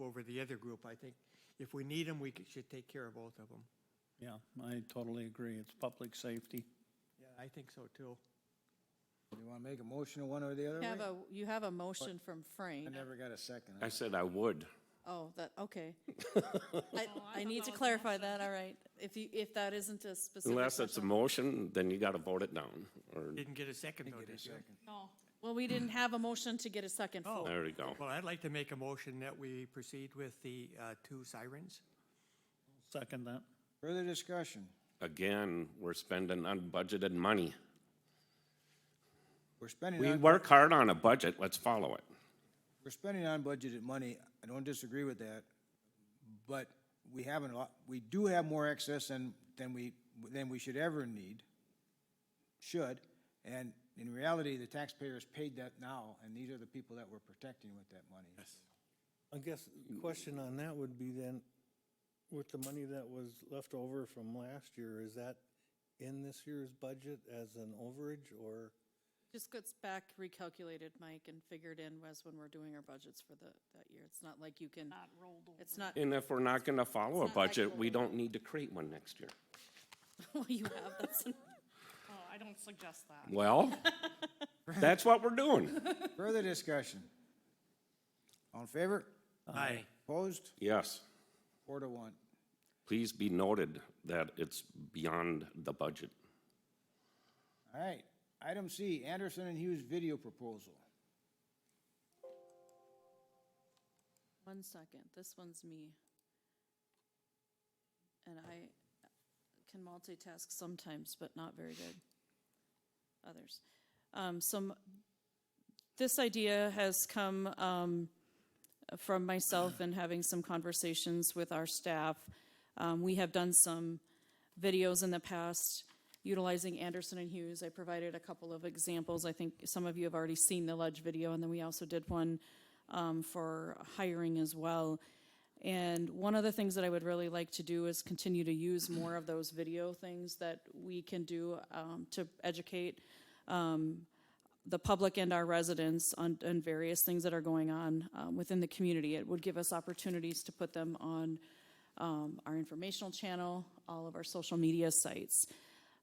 over the other group. I think if we need them, we c- should take care of both of them. Yeah, I totally agree. It's public safety. Yeah, I think so too. Do you want to make a motion one or the other You have way? a, you have a motion from Frank. I never got a second. I said I would. Oh, that, okay. I, I need to clarify that, all right. If you, if that isn't a specific. Unless it's a motion. motion, then you gotta vote it down, or, Didn't get a second though, Get a did you? second. Well, we didn't have a motion to get a second Oh. for. there you go. Well, I'd like to make a motion that we proceed with the uh, two sirens. Second that. Further discussion. Again, we're spending unbudgeted money. We're spending, We on- work hard on a budget, let's follow it. we're spending unbudgeted money. I don't disagree with that. But we haven't, lo- we do have more excess than, than we, than we should ever need, should. And in reality, the taxpayers paid that now, and these are the people that we're protecting with that money. I guess the question on that would be then, with the money that was left over from last year, is that in this year's budget as an overage or? Just gets back recalculated, Mike, and figured in as when we're doing our budgets for the, that year. It's not like you can. Not rolled over. It's not, And if we're not gonna follow a It's not like budget, we'll- we don't need to create one next year. well, you have, that's, Oh, I don't suggest that. Well, that's what we're doing. Further discussion. All in favor? Aye. Opposed? Yes, Four to one. please be noted that it's beyond the budget. All right, item C, Anderson and Hughes video proposal. one second, this one's me. And I can multitask sometimes, but not very good. Others. Um, some, this idea has come, um, from myself and having some conversations with our staff. Um, we have done some videos in the past utilizing Anderson and Hughes. I provided a couple of examples. I think some of you have already seen the Ledge video, and then we also did one um, for hiring as well. And one of the things that I would really like to do is continue to use more of those video things that we can do um, to educate um, the public and our residents on, on various things that are going on um, within the community. It would give us opportunities to put them on um, our informational channel, all of our social media sites.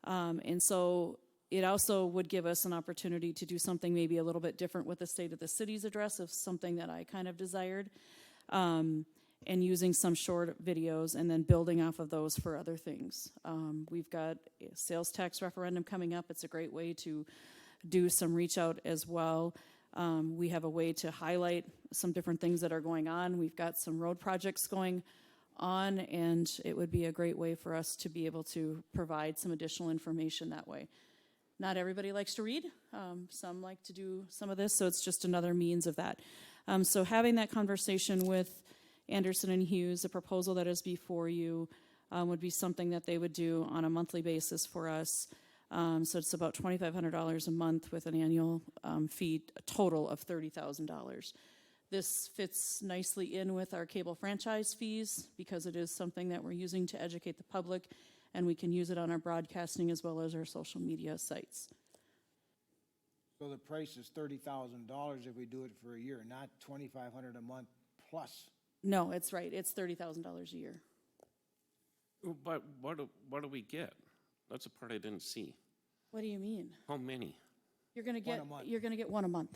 Um, and so it also would give us an opportunity to do something maybe a little bit different with the state of the city's address of something that I kind of desired. Um, and using some short videos and then building off of those for other things. Um, we've got a sales tax referendum coming up. It's a great way to do some reach out as well. Um, we have a way to highlight some different things that are going on. We've got some road projects going on, and it would be a great way for us to be able to provide some additional information that way. Not everybody likes to read. Um, some like to do some of this, so it's just another means of that. Um, so having that conversation with Anderson and Hughes, the proposal that is before you um, would be something that they would do on a monthly basis for us. Um, so it's about twenty-five hundred dollars a month with an annual um, fee, a total of thirty thousand dollars. This fits nicely in with our cable franchise fees because it is something that we're using to educate the public, and we can use it on our broadcasting as well as our social media sites. So the price is thirty thousand dollars if we do it for a year, not twenty-five hundred a month plus. No, it's right. It's thirty thousand dollars a year. But what, do- what do we get? That's the part I didn't see. What do you mean? How many? You're gonna One get a month. you're gonna get one a month,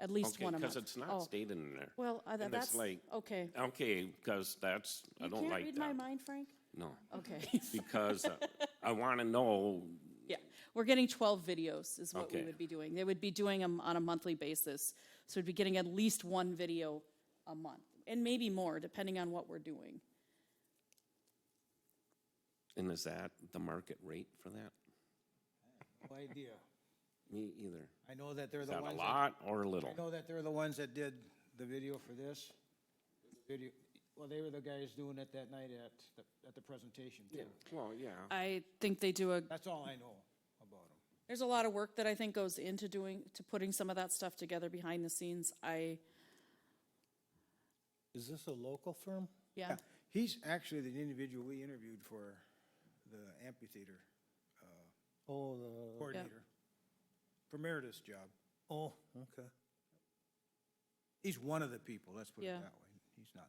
at least Okay, one a month. Because it's Oh. not stated in there. Well, uh, And it's that's like- okay. Okay, because that's, I You don't can't like that. read my mind, Frank. No, Okay. because uh, I want to know, Yeah, we're getting 12 videos is what we Okay. would be doing. They would be doing them on a monthly basis. So we'd be getting at least one video a month and maybe more depending on what we're doing. and is that the market rate for that? No idea. Me either. I know that they're Is the that a ones. lot or a little? I know that they're the ones that did the video for this. Video, well, they were the guys doing it that night at, the- at the presentation too. Well, yeah. I think they do a, That's all I know about them. there's a lot of work that I think goes into doing, to putting some of that stuff together behind the scenes. I, Is this a local firm? yeah, He's actually the individual we interviewed for the amphitheater uh, Oh, the, coordinator. For Meredith's job. oh, okay. He's one of the people, let's put it Yeah. that way. He's not